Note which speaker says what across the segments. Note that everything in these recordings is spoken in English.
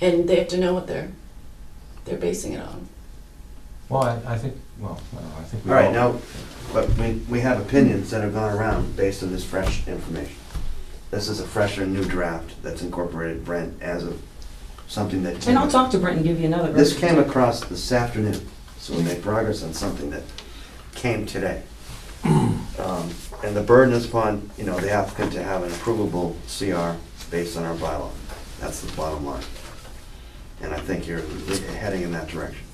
Speaker 1: and they have to know what they're, they're basing it on.
Speaker 2: Well, I, I think, well, I don't know, I think we
Speaker 3: All
Speaker 2: all.
Speaker 3: right, now, but we, we have opinions that have gone around based on this fresh information. This is a fresher new draft that's incorporated Brent as of something that.
Speaker 4: And I'll talk to Brent and give you another.
Speaker 3: This
Speaker 4: version.
Speaker 3: came across this afternoon, so we made progress on something that came today. Um, And the burden is upon, you know, the applicant to have an approvable CR based on our bylaw. That's the bottom line. And I think you're heading in that direction.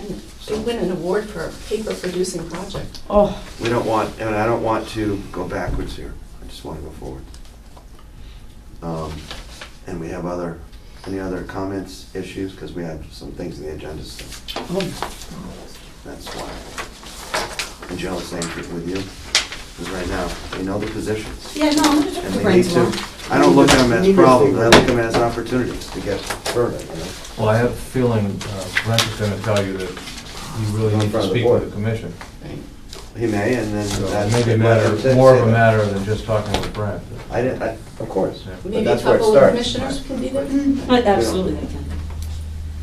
Speaker 1: And they win an award for a paper producing project.
Speaker 4: Oh,
Speaker 3: We don't want, and I don't want to go backwards here, I just want to go forward. Um, And we have other, any other comments, issues, because we have some things in the agenda, so Um,
Speaker 4: oh,
Speaker 3: that's why. And Joe, same thing with you, because right now, we know the positions,
Speaker 4: yeah, no, I'm gonna
Speaker 3: and
Speaker 4: talk to
Speaker 3: we need
Speaker 4: Brent
Speaker 3: to,
Speaker 4: tomorrow.
Speaker 3: I don't look at them as problems, I look at them as opportunities to get further, you know?
Speaker 2: Well, I have a feeling uh, Brent is gonna tell you that you really
Speaker 3: In
Speaker 2: need
Speaker 3: front
Speaker 2: to
Speaker 3: of the
Speaker 2: speak with
Speaker 3: board.
Speaker 2: the commission.
Speaker 1: Right.
Speaker 3: He may, and then
Speaker 2: So
Speaker 3: that's.
Speaker 2: it may be a
Speaker 3: let him
Speaker 2: matter, more of
Speaker 3: say
Speaker 2: a
Speaker 3: that.
Speaker 2: matter than just talking with Brent.
Speaker 3: I didn't, I, of course,
Speaker 2: Yeah.
Speaker 3: but
Speaker 1: Maybe a
Speaker 3: that's where it
Speaker 1: couple of
Speaker 3: starts.
Speaker 1: commissioners can be there.
Speaker 4: But Absolutely, they can.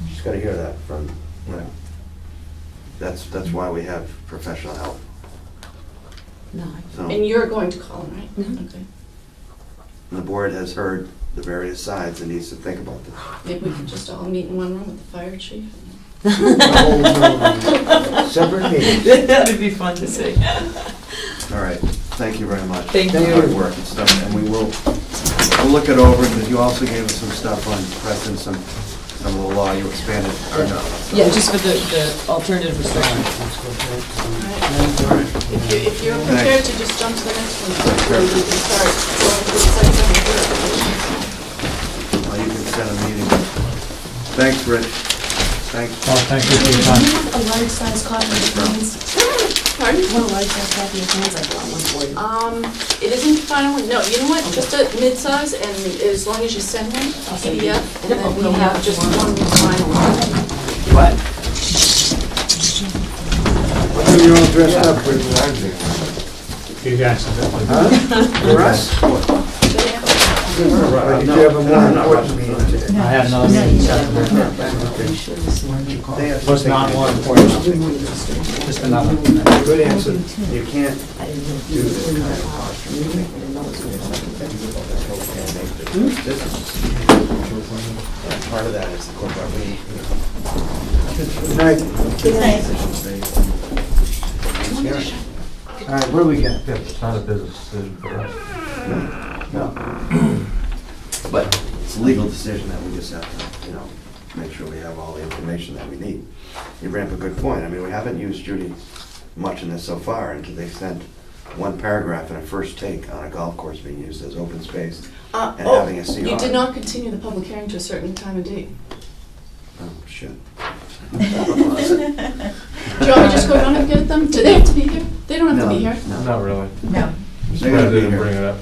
Speaker 3: Just gotta hear that from, you
Speaker 2: Right.
Speaker 3: know, that's, that's why we have professional help,
Speaker 4: No, I-
Speaker 3: so.
Speaker 1: And you're going to call them, right?
Speaker 4: Mhm.
Speaker 1: Okay.
Speaker 3: The board has heard the various sides and needs to think about this.
Speaker 1: Maybe we could just all meet in one room with the fire chief.
Speaker 3: Separate meetings.
Speaker 4: That'd be fun to see.
Speaker 3: All right, thank you very much.
Speaker 4: Thank
Speaker 3: It's
Speaker 4: you.
Speaker 3: Hard work and stuff, and we will, we'll look it over, because you also gave us some stuff on precedent, some, some of the law, you expanded our knowledge.
Speaker 4: Yeah, just for the, the alternative restriction.
Speaker 1: If you, if you're
Speaker 3: Thanks.
Speaker 1: prepared to just jump to the next one,
Speaker 3: Sure.
Speaker 1: quickly, we can start going through site plan verification.
Speaker 3: Well, uh, you can set a meeting. Thanks, Rich. Thanks.
Speaker 2: Well, thank you for your time.
Speaker 5: A large size copy of the plans,
Speaker 1: Pardon?
Speaker 5: what a large size copy of plans I've got on one board.
Speaker 1: Um, it isn't final, no, you know what, just a mid-size, and as long as you send one,
Speaker 4: send
Speaker 1: PDF, and then we have just one final one.
Speaker 3: You're all dressed up with.
Speaker 6: You guys have it.
Speaker 3: For us? Right, no, no, I'm not rushing you today.
Speaker 6: I had another meeting.
Speaker 3: They have to
Speaker 6: Was
Speaker 3: take
Speaker 6: not
Speaker 3: it.
Speaker 6: one for you. Just another.
Speaker 3: Good answer. You can't do this kind of posture. This is, and part of that is the corporate. Good night.
Speaker 6: All right, where do we get?
Speaker 2: Yeah, it's not a business decision for us.
Speaker 3: But it's a legal decision that we just have to, you know, make sure we have all the information that we need. You bring up a good point. I mean, we haven't used Judy much in this so far, and to the extent one paragraph in a first take on a golf course being used as open space,
Speaker 1: Uh,
Speaker 3: And
Speaker 1: oh,
Speaker 3: having a CR.
Speaker 1: you did not continue the public hearing to a certain time and date.
Speaker 3: oh, shit.
Speaker 1: Do you want me to just go run and get them? Do they have to be here? They don't have to be
Speaker 3: No,
Speaker 1: here.
Speaker 3: no.
Speaker 2: Not really.
Speaker 7: No.
Speaker 3: They gotta
Speaker 2: Brent
Speaker 3: be
Speaker 2: didn't
Speaker 3: here.
Speaker 2: Bring it up.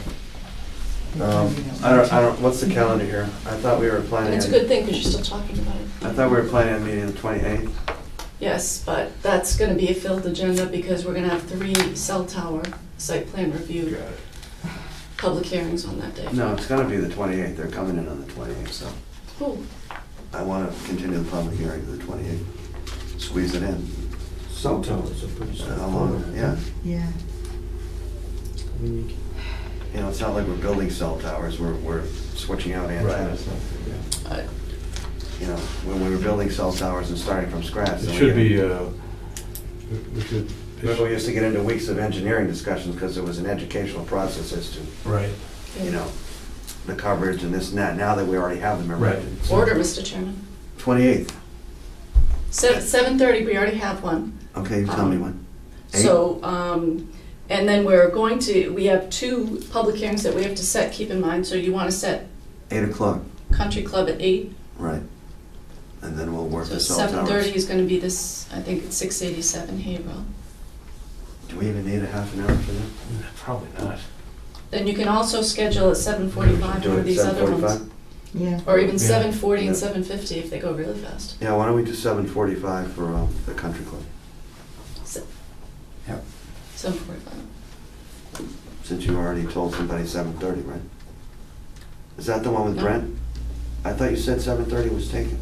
Speaker 3: Um, I don't, I don't, what's the calendar here? I thought we were planning.
Speaker 1: And it's a good thing, because you're still talking about it.
Speaker 3: I thought we were planning on meeting the twenty-eighth.
Speaker 1: Yes, but that's gonna be a filled agenda, because we're gonna have three cell tower site plan review public hearings on that day.
Speaker 3: No, it's gonna be the twenty-eighth. They're coming in on the twenty-eighth, so
Speaker 1: Cool.
Speaker 3: I wanna continue the public hearing to the twenty-eighth. Squeeze it in.
Speaker 8: Cell towers are pretty
Speaker 3: How long,
Speaker 8: straightforward.
Speaker 3: yeah.
Speaker 7: Yeah.
Speaker 8: I mean, you can-
Speaker 3: You know, it's not like we're building cell towers. We're, we're switching out antennas.
Speaker 1: Uh,
Speaker 3: You know, when we were building cell towers and starting from scratch.
Speaker 2: It
Speaker 3: then we
Speaker 2: should
Speaker 3: get-
Speaker 2: be, uh, we should.
Speaker 3: Remember, we used to get into weeks of engineering discussions because it was an educational process as to,
Speaker 2: Right.
Speaker 3: you know, the coverage and this and that. Now that we already have them
Speaker 2: Right.
Speaker 3: erected.
Speaker 1: Order, Mr. Chairman.
Speaker 3: Twenty-eighth.
Speaker 1: Seven, seven thirty, we already have one.
Speaker 3: Okay, you tell me when. Eight?
Speaker 1: So, um, and then we're going to, we have two public hearings that we have to set, keep in mind, so you wanna set
Speaker 3: Eight o'clock,
Speaker 1: Country Club at eight,
Speaker 3: right. And then we'll work
Speaker 1: so
Speaker 3: the cell
Speaker 1: seven thirty
Speaker 3: towers.
Speaker 1: is gonna be this, I think it's six eighty-seven Haverhill.
Speaker 3: Do we even need a half an hour for that?
Speaker 2: Probably not.
Speaker 1: Then you can also schedule at seven forty-five
Speaker 3: Do it
Speaker 1: for
Speaker 3: at
Speaker 1: these other ones,
Speaker 3: 7:45?
Speaker 7: Yeah.
Speaker 1: or even
Speaker 2: Yeah.
Speaker 1: seven forty and
Speaker 3: Yeah.
Speaker 1: seven fifty if they go really fast.
Speaker 3: Yeah, why don't we do seven forty-five for um, the country club? Yep.
Speaker 1: Seven forty-five.
Speaker 3: Since you already told somebody seven thirty, right? Is that the one with
Speaker 1: No.
Speaker 3: Brent? I thought you said seven thirty was taken.